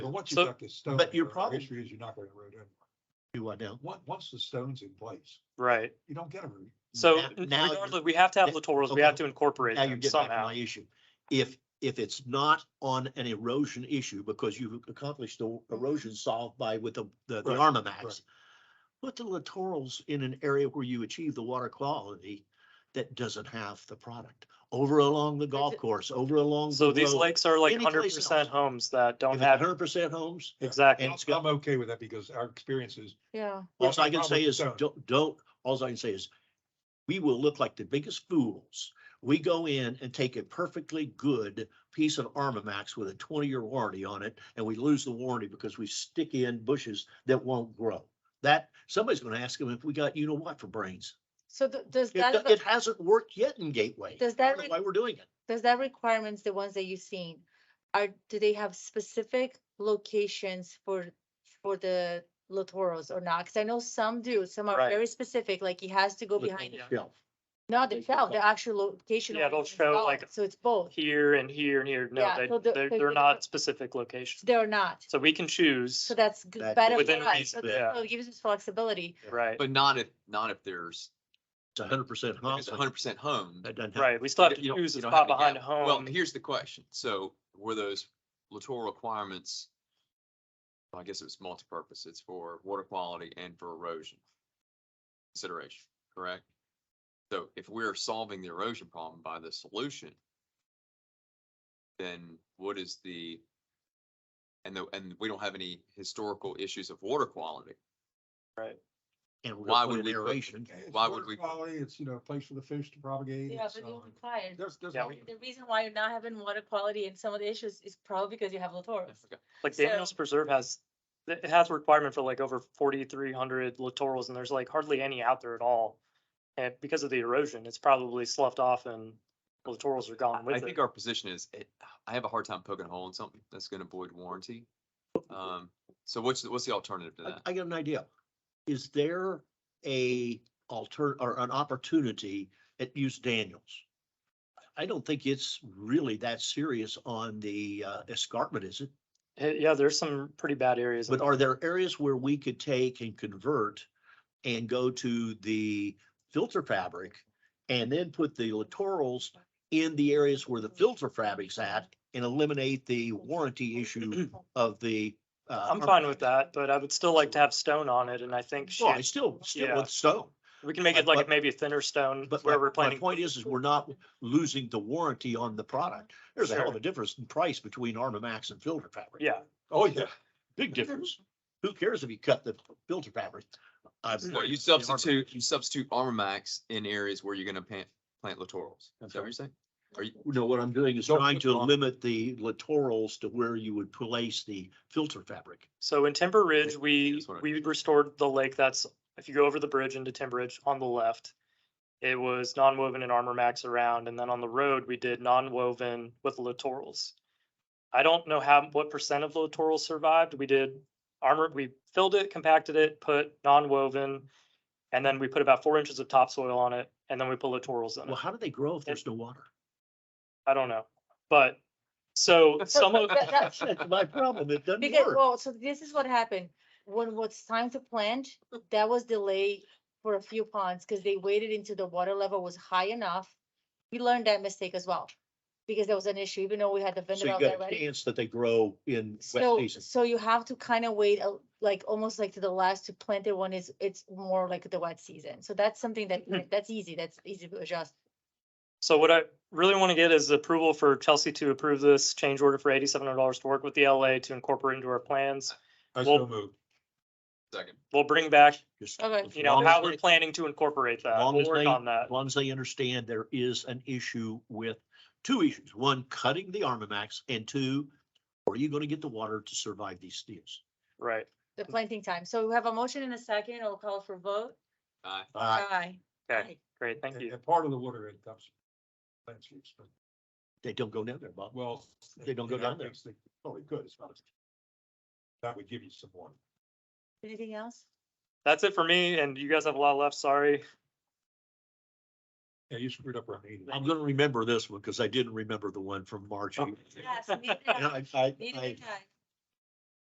once you So- got the stone. but your the problem- Issue is you're not gonna road anymore. Do what now? Once, once the stone's in place, right. you don't get a road. So Now- n- now you're- regardless, we have to have littorals, we okay. have to incorporate Now you're them getting back to somehow. my issue. If, if it's not on an erosion issue, because you've accomplished the erosion solved by with the, the the Right, Armamax. right. Put the littorals in an area where you achieve the water quality that doesn't have the product. Over along the golf course, over along. So the these road. lakes are like Any place hundred percent else. homes that don't If it's have, hundred percent homes, exactly. and I'm it's got- I'm okay with that because our experience is. Yeah. all Well, I can problem say with is, stone. don't, don't, all I can say is, we will look like the biggest fools. We go in and take a perfectly good piece of Armamax with a twenty-year warranty on it, and we lose the warranty because we stick in bushes that won't grow. That, somebody's gonna ask them if we got, you know what, for brains. So th- does It, that, do- it hasn't worked yet in Gateway. does I that, don't know Why re- we're doing it. does that requirements, the ones that you've seen, are, do they have specific locations for, for the littorals or not? Cause I know some do, some are Right. very specific, like it has to go behind, Yeah. Shelf. not the They- shelf, the actual location. Yeah, where they'll it's show, installed. like, So it's both, Here and here and here, no, Yeah, they, so the- they're, the- they're the- not specific locations. they're not. So we can choose, So that's g- That- better Within for us. reason, So yeah. it gives us flexibility. right, But not if, not if there's, It's a hundred percent if it's home. hundred percent home. That doesn't happen. right, we still have to you don't- choose a you don't spot have to behind a have- Well, home. here's the question. So were those littoral requirements? well, I guess it was multi-purpose. It's for water quality and for erosion consideration, correct? So if we're solving the erosion problem by the solution, then what is the, and the, and we don't have any historical issues of water quality. And we're why gonna put would an we put- aeration. It's Why water would we- Quality, it's, you know, a place for the fish to propagate. Yeah, it's, but uh, you're required. There's, there's. Yeah, no- we- The reason why you're not having water quality in some of the issues is probably because you have littorals. Like So- Daniels Preserve has, it has a requirement for like over forty-three hundred littorals and there's like hardly any out there at all. And because of the erosion, it's probably sloughed off and littorals are gone I with think it. our position is, it- I have a hard time poking a hole in something that's gonna void warranty. Um, so what's, the- what's the alternative to I- that? I got an idea. Is there a alter, or an opportunity at Use Daniels? I don't think it's really that serious on the uh, escarpment, is it? Eh, Yeah, there's some pretty bad areas. in But are there areas where we could take and convert and go to the filter fabric and then put the littorals in the areas where the filter fabric's at and eliminate the warranty issue of the. uh, I'm fine with that, but I would still like to have stone on it, and I think Well, I shade- still, still Yeah. with stone. we can make but- it like but- maybe a thinner stone But my, where we're my planning. point is, is we're not losing the warranty on the product. There's a hell of Sure. a difference in price between Armamax and filter fabric. Yeah, Mm-hmm. Oh, yeah. Big difference. Who cares if you cut the filter fabric? I- Mm-hmm. So You the Armor- substitute, you substitute Armor Max in areas where you're gonna plant, plant littorals. Is that what you're saying? Are you, No, what I'm doing is Don't trying put to on- limit the littorals to where you would place the filter fabric. so in Timber Ridge, we that's what I- we restored the lake. That's if you go over the bridge into Timber Ridge on the left, it was non-woven and Armor Max around, and then on the road we did non-woven with littorals. I don't know how what percent of the littorals survived. We did armor. We filled it, compacted it, put non-woven, and then we put about four inches of topsoil on it, and then we put littorals in it. Well, how do they grow if there's no water? I don't know, but so some of, That- that- That's my problem. It doesn't Because, work. well, so this is what happened. When what's time to plant, that was delayed for a few ponds because they waited until the water level was high enough. We learned that mistake as well, because there was an issue, even though we had the So vendor you out got there a ready. chance that they grow in wet So, season. so you have to kind of wait, a- like, almost like to the last to plant it when it's, it's more like the wet season. So that's something that, that's easy, that's easy to adjust. so what I really want to get is approval for Chelsea to approve this change order for eighty-seven hundred dollars to work with the LA to incorporate into our plans. I Well- still moved. second, We'll bring back, Just Okay. as you know, long as how they- we're planning to incorporate that. long We'll as work they- on that. As long as they understand there is an issue with, two issues, one, cutting the Armamax, and two, are you gonna get the water to survive these steels? Right. The planting time. So we have a motion in a second. I'll call for vote. aye. Uh, Aye. Okay, great. Thank And- you. and Part of the water it comes. from Landscapes, but, they don't go down there, Bob. well. They don't go in down our there. case, they- Oh, they could, it's not. a- That would give you some water. Anything else? That's it for me, and you guys have a lot left. Sorry. Yeah, you screwed up our meeting. I'm gonna remember this one, because I didn't remember the one from March. Oh. And Yes. meeting I, I, Meeting I, time.